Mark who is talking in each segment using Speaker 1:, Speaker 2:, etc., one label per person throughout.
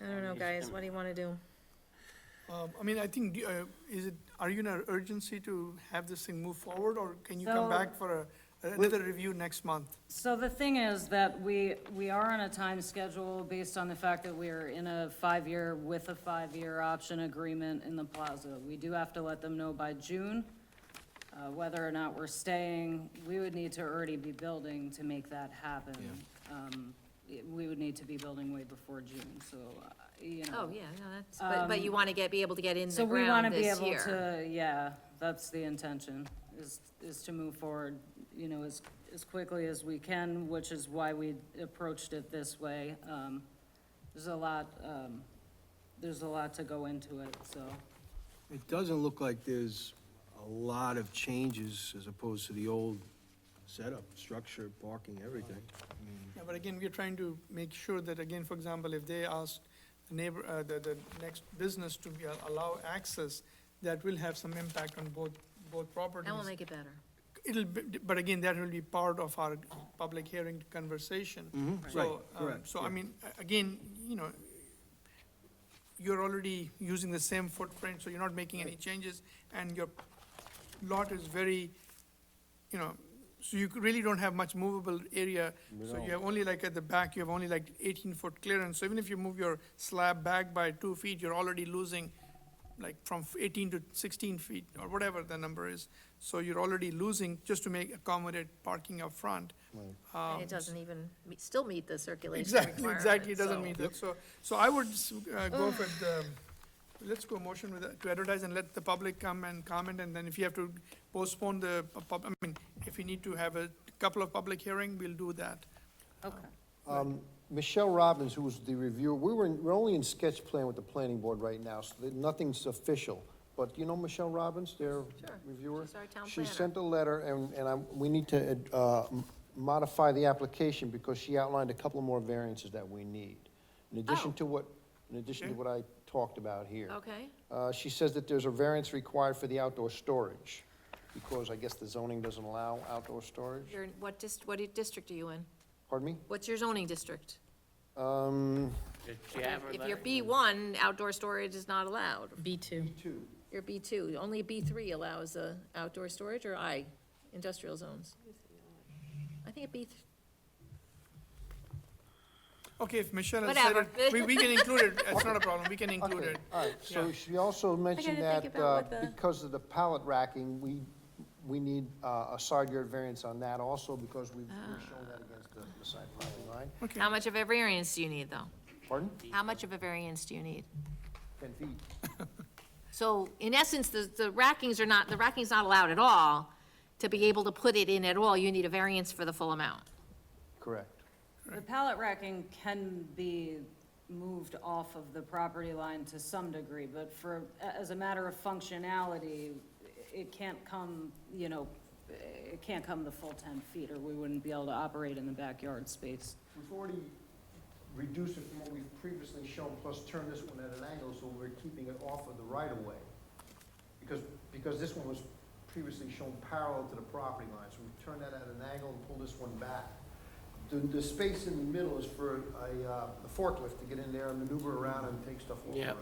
Speaker 1: know, guys, what do you want to do?
Speaker 2: Um, I mean, I think, do- uh, is it, are you in an urgency to have this thing move forward, or can you come
Speaker 3: So-
Speaker 2: back for a- another review next month?
Speaker 3: So the thing is that we, we are on a time schedule based on the fact that we're in a five-year with a five-year option agreement in the plaza. We do have to let them know by June, uh, whether or not we're staying. We would need to already be building to make that happen. Um, it- we would need to be building way before June, so, uh, you know.
Speaker 4: Oh, yeah, no, that's, but, but you want to get, be able to get in the
Speaker 3: So we want to
Speaker 4: ground
Speaker 3: be
Speaker 4: this
Speaker 3: able
Speaker 4: year.
Speaker 3: to, yeah, that's the intention, is, is to move forward, you know, as, as quickly as we can, which is why we approached it this way. Um, There's a lot, um, there's a lot to go into it, so,
Speaker 5: It doesn't look like there's a lot of changes as opposed to the old setup, structure, parking, everything.
Speaker 2: Yeah, But again, we're trying to make sure that, again, for example, if they ask the neighbor, uh, the, the next business to be- uh, allow access, that will have some impact on both, both properties.
Speaker 4: That will make it better.
Speaker 2: It'll, be- but again, that will be part of our public hearing conversation. So,
Speaker 5: Mm-hmm. Right,
Speaker 2: um,
Speaker 5: correct,
Speaker 2: so I
Speaker 5: yeah.
Speaker 2: mean, a- again, you know, you're already using the same footprint, so you're not making any changes, and your lot is very, you know, so you really don't have much movable area. So you have only like at the back, you have only like eighteen-foot clearance, so even if you move your slab back by two feet, you're already losing like from eighteen to sixteen feet, or whatever the number is. So you're already losing just to make accommodate parking up front.
Speaker 4: And it doesn't even, meet- still meet the circulation
Speaker 2: Exactly, exactly, it
Speaker 4: requirement,
Speaker 2: doesn't
Speaker 4: so.
Speaker 2: mean that, so, so I would s- uh, go with, the let's go motion with, that, to advertise and let the public come and comment, and then if you have to postpone the, pu- pub- I mean, if you need to have a couple of public hearing, we'll do that.
Speaker 3: okay.
Speaker 6: Michelle Robbins, who was the reviewer, we were, in- we're only in sketch plan with the planning board right now, so that nothing's official. But you know Michelle Robbins, their reviewer?
Speaker 4: she's our town
Speaker 6: She
Speaker 4: planner.
Speaker 6: sent a letter, and, and i we need to, uh, m- modify the application because she outlined a couple more variances that we need. In addition
Speaker 4: Oh.
Speaker 6: to what, in addition to what I talked about here.
Speaker 4: Okay,
Speaker 6: Uh, she says that there's a variance required for the outdoor storage, because I guess the zoning doesn't allow outdoor storage.
Speaker 4: you're, in- what dist, what district are you in?
Speaker 6: Pardon me?
Speaker 4: What's your zoning district?
Speaker 6: Um,
Speaker 4: If you're B one, outdoor storage is not allowed.
Speaker 1: B2.
Speaker 4: You're B two, only B three allows, uh, outdoor storage, or I, industrial zones? I think it B, th-
Speaker 2: Okay, if Michelle has said
Speaker 4: Whatever.
Speaker 2: it, we, we can include it, it's not a problem, we can include
Speaker 6: Okay,
Speaker 2: it.
Speaker 6: all right, so
Speaker 2: Yeah.
Speaker 6: she also
Speaker 4: think
Speaker 6: mentioned that,
Speaker 4: about
Speaker 6: uh,
Speaker 4: what the-
Speaker 6: because of the pallet racking, we, we need, uh, a side yard variance on that also, because we've,
Speaker 4: Ah.
Speaker 6: we've shown that against the, the side property line.
Speaker 2: Okay,
Speaker 4: how much of a variance do you need, though?
Speaker 6: Pardon?
Speaker 4: How much of a variance do you need?
Speaker 6: Ten feet.
Speaker 4: So in essence, the, the rackings are not, the racking's not allowed at all. To be able to put it in at all, you need a variance for the full amount.
Speaker 6: Correct.
Speaker 3: The pallet racking can be moved off of the property line to some degree, but for, as a matter of functionality, it can't come, you know, it can't come the full ten feet, or we wouldn't be able to operate in the backyard space.
Speaker 6: We've already reduced it from what we've previously shown, plus turned this one at an angle, so we're keeping it off of the right of way. Because, because this one was previously shown parallel to the property line, so we've turned that at an angle and pulled this one back. The, the space in the middle is for a, uh, a forklift to get in there and maneuver around and take stuff off the
Speaker 7: Yeah. Mm-hmm.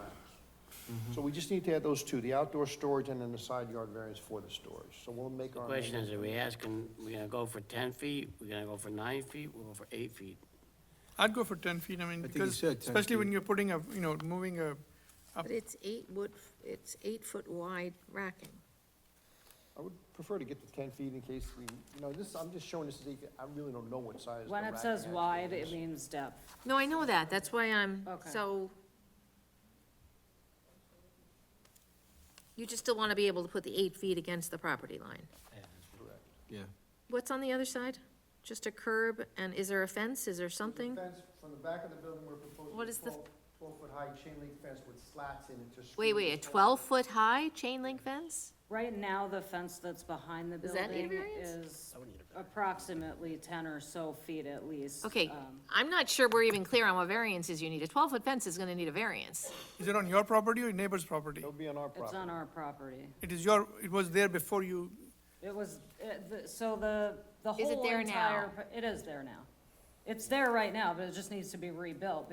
Speaker 6: racks. So we just need to add those two, the outdoor storage and then the side yard variance for the storage, so we'll make
Speaker 7: The
Speaker 6: our.
Speaker 7: question is,
Speaker 6: amendment.
Speaker 7: are we asking, we gonna go for ten feet, we gonna go for nine feet, we'll go for eight feet?
Speaker 2: I'd go for ten feet, I mean,
Speaker 5: I think you
Speaker 2: because,
Speaker 5: said 10
Speaker 2: especially when
Speaker 5: feet.
Speaker 2: you're putting a, you know, moving a,
Speaker 8: But it's eight wood, it's eight foot wide racking.
Speaker 6: I would prefer to get to ten feet in case we, you know, this, I'm just showing this as, eight feet. I really don't know what size. the
Speaker 3: When it
Speaker 6: rack
Speaker 3: says
Speaker 6: actually
Speaker 3: wide,
Speaker 6: is.
Speaker 3: it means depth.
Speaker 4: No, I know that, that's why I'm,
Speaker 3: Okay.
Speaker 4: so. You just still want to be able to put the eight feet against the property line.
Speaker 5: Yeah.
Speaker 4: What's on the other side? Just a curb, and is there a fence, is there something?
Speaker 6: Fence from the back of the building, we're proposing.
Speaker 4: What is the-
Speaker 6: Twelve-foot high chain link fence with slats in it to.
Speaker 4: Wait,
Speaker 6: screen
Speaker 4: wait, a
Speaker 6: the-
Speaker 4: twelve-foot high chain link fence?
Speaker 3: Right now, the fence that's behind the
Speaker 4: Does that need a
Speaker 3: building
Speaker 4: variance?
Speaker 3: is approximately ten or so feet at least.
Speaker 4: Okay,
Speaker 3: Um,
Speaker 4: I'm not sure we're even clear on what variances you need, a twelve-foot fence is gonna need a variance.
Speaker 2: is it on your property or your neighbor's property?
Speaker 6: It'll be on our
Speaker 3: It's on
Speaker 6: property.
Speaker 3: our property.
Speaker 2: It is your, it was there before you,
Speaker 3: It was, it- the- so the, the
Speaker 4: Is it
Speaker 3: whole
Speaker 4: there now?
Speaker 3: entire, it is there now. It's there right now, but it just needs to be rebuilt